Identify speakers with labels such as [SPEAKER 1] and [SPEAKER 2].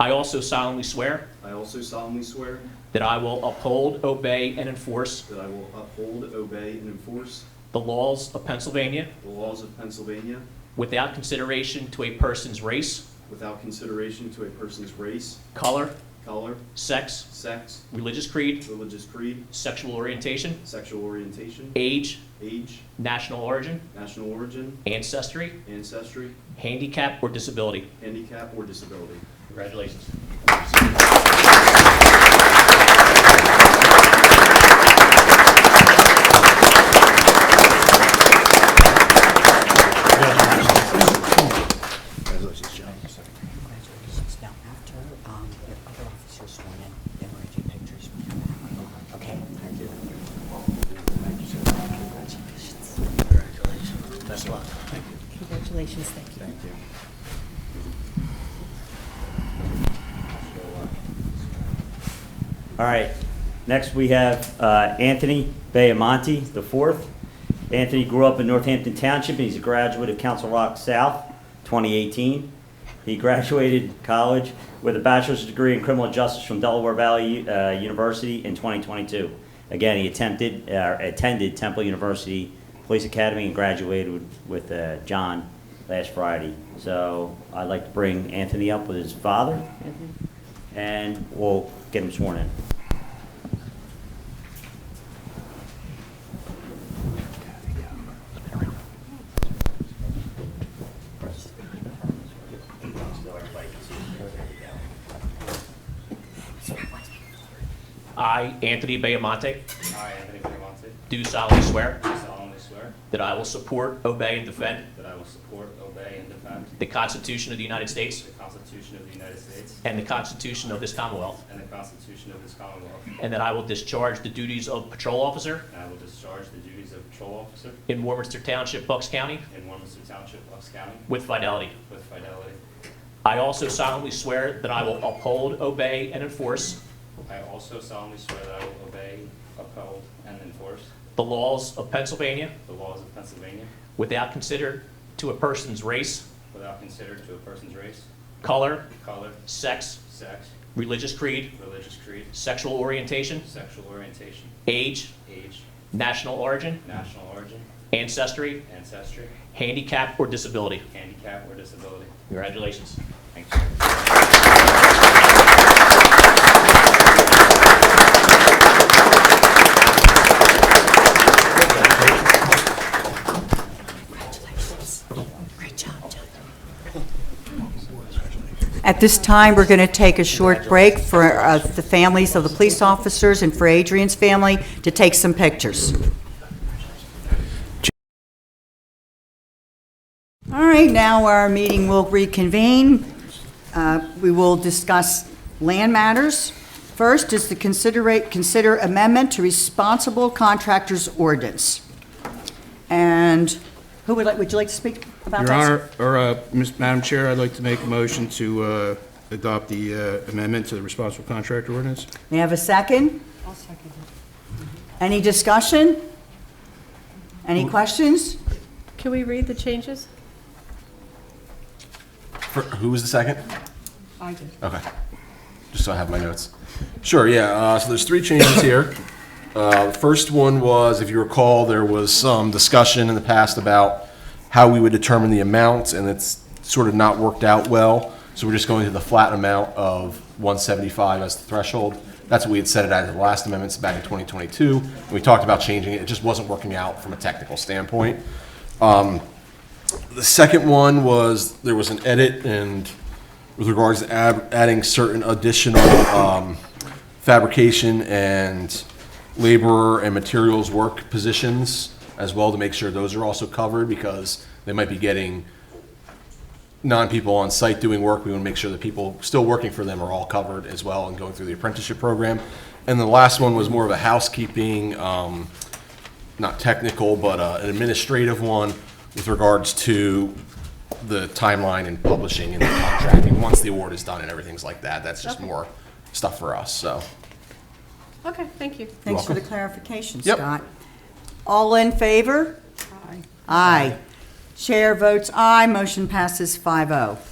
[SPEAKER 1] I also solemnly swear
[SPEAKER 2] I also solemnly swear
[SPEAKER 1] that I will uphold, obey, and enforce
[SPEAKER 2] that I will uphold, obey, and enforce
[SPEAKER 1] the laws of Pennsylvania
[SPEAKER 2] the laws of Pennsylvania
[SPEAKER 1] without consideration to a person's race,
[SPEAKER 2] without consideration to a person's race,
[SPEAKER 1] color,
[SPEAKER 2] color,
[SPEAKER 1] sex,
[SPEAKER 2] sex,
[SPEAKER 1] religious creed,
[SPEAKER 2] religious creed,
[SPEAKER 1] sexual orientation,
[SPEAKER 2] sexual orientation,
[SPEAKER 1] age,
[SPEAKER 2] age,
[SPEAKER 1] national origin,
[SPEAKER 2] national origin,
[SPEAKER 1] ancestry,
[SPEAKER 2] ancestry,
[SPEAKER 1] handicap, or disability.
[SPEAKER 2] handicap, or disability.
[SPEAKER 1] Congratulations.
[SPEAKER 3] Congratulations, John.
[SPEAKER 4] Congratulations. Now, after um, your other officer's sworn in, then we're going to do pictures. Okay? Thank you. Congratulations.
[SPEAKER 3] Congratulations. Best of luck. Thank you.
[SPEAKER 5] Congratulations, thank you.
[SPEAKER 3] Thank you.
[SPEAKER 6] All right, next we have uh, Anthony Bayamonte the fourth. Anthony grew up in Northampton Township, and he's a graduate of Council Rock South 2018. He graduated college with a bachelor's degree in criminal justice from Delaware Valley uh, University in 2022. Again, he attempted, uh, attended Temple University Police Academy and graduated with- with uh, John last Friday. So I'd like to bring Anthony up with his father, and we'll get him sworn in.
[SPEAKER 1] I, Anthony Bayamonte,
[SPEAKER 7] I, Anthony Belamonte,
[SPEAKER 1] do solemnly swear
[SPEAKER 7] do solemnly swear
[SPEAKER 1] that I will support, obey, and defend
[SPEAKER 7] that I will support, obey, and defend
[SPEAKER 1] the Constitution of the United States
[SPEAKER 7] the Constitution of the United States
[SPEAKER 1] and the Constitution of this Commonwealth,
[SPEAKER 7] and the Constitution of this Commonwealth,
[SPEAKER 1] and that I will discharge the duties of patrol officer
[SPEAKER 7] and I will discharge the duties of patrol officer
[SPEAKER 1] in Warminster Township, Bucks County,
[SPEAKER 7] in Warminster Township, Bucks County,
[SPEAKER 1] with fidelity.
[SPEAKER 7] with fidelity.
[SPEAKER 1] I also solemnly swear that I will uphold, obey, and enforce
[SPEAKER 7] I also solemnly swear that I will obey, uphold, and enforce
[SPEAKER 1] the laws of Pennsylvania
[SPEAKER 7] the laws of Pennsylvania
[SPEAKER 1] without consider to a person's race,
[SPEAKER 7] without consider to a person's race,
[SPEAKER 1] color,
[SPEAKER 7] color,
[SPEAKER 1] sex,
[SPEAKER 7] sex,
[SPEAKER 1] religious creed,
[SPEAKER 7] religious creed,
[SPEAKER 1] sexual orientation,
[SPEAKER 7] sexual orientation,
[SPEAKER 1] age,
[SPEAKER 7] age,
[SPEAKER 1] national origin,
[SPEAKER 7] national origin,
[SPEAKER 1] ancestry,
[SPEAKER 7] ancestry,
[SPEAKER 1] handicap, or disability.
[SPEAKER 7] handicap, or disability.
[SPEAKER 1] Congratulations.
[SPEAKER 7] Thank you.
[SPEAKER 4] Congratulations. Great job, John. At this time, we're going to take a short break for uh, the families of the police officers and for Adrian's family to take some pictures. All right, now our meeting will reconvene. Uh, We will discuss land matters. First is the considerate, consider amendment to responsible contractors ordinance. And who would like, would you like to speak about
[SPEAKER 8] Your
[SPEAKER 4] that?
[SPEAKER 8] Honor, or, uh, Ms. Madam Chair, I'd like to make a motion to uh, adopt the uh, amendment to the responsible contractor ordinance.
[SPEAKER 4] May I have a second? I'll second it. Any discussion? Any questions?
[SPEAKER 5] Can we read the changes?
[SPEAKER 9] For- Who was the second?
[SPEAKER 4] I did.
[SPEAKER 9] Okay. Just so I have my notes. Sure, yeah, uh, so there's three changes here. Uh, First one was, if you recall, there was some discussion in the past about how we would determine the amount, and it's sort of not worked out well. So we're just going to the flat amount of 175 as the threshold. That's what we had set it at at the last amendments back in 2022. We talked about changing it, it just wasn't working out from a technical standpoint. The second one was, there was an edit and with regards to ab- adding certain additional um, fabrication and laborer and materials work positions as well to make sure those are also covered because they might be getting non-people on site doing work. We want to make sure the people still working for them are all covered as well and going through the apprenticeship program. And the last one was more of a housekeeping, um, not technical, but uh, an administrative one with regards to the timeline and publishing and the contracting, once the award is done and everything's like that. That's just
[SPEAKER 5] Okay.
[SPEAKER 9] more stuff for us, so.
[SPEAKER 5] Okay, thank you.
[SPEAKER 4] Thanks for the
[SPEAKER 9] welcome.
[SPEAKER 4] clarification,
[SPEAKER 9] Yep.
[SPEAKER 4] Scott. All in favor? Aye. Aye. Chair votes aye, motion passes oh. 5-0.